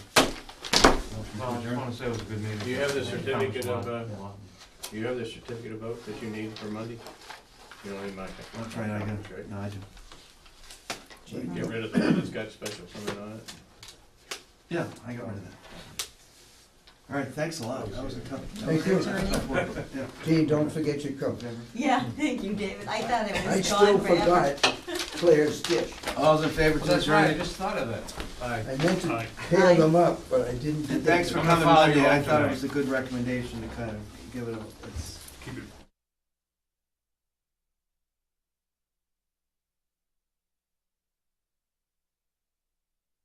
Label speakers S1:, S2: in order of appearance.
S1: No, I just wanna say it was a good meeting.
S2: Do you have the certificate of, uh, Do you have the certificate of vote that you need for Monday? You don't need mine.
S1: That's right, I got,
S2: That's right.
S1: no, I do.
S2: Get rid of the one that's got special comment on it.
S1: Yeah, I got rid of that. All right, thanks a lot. That was a tough. that
S3: Thank
S1: was
S3: you.
S1: a tough one, but, yeah.
S3: Gee, don't forget your coat.
S4: Yeah, thank you, David. I thought it
S3: I
S4: was
S3: still
S4: gone forever.
S3: forgot Claire's dish.
S1: All those in favor to adjourn?
S5: just thought of that.
S3: I meant to peel them up, but I didn't. do
S1: And thanks for
S5: I'm gonna
S1: coming
S5: follow you
S1: Monday. I
S5: all
S1: thought it
S5: tonight.
S1: was a good recommendation to kind of give it, a- it's,
S5: Keep it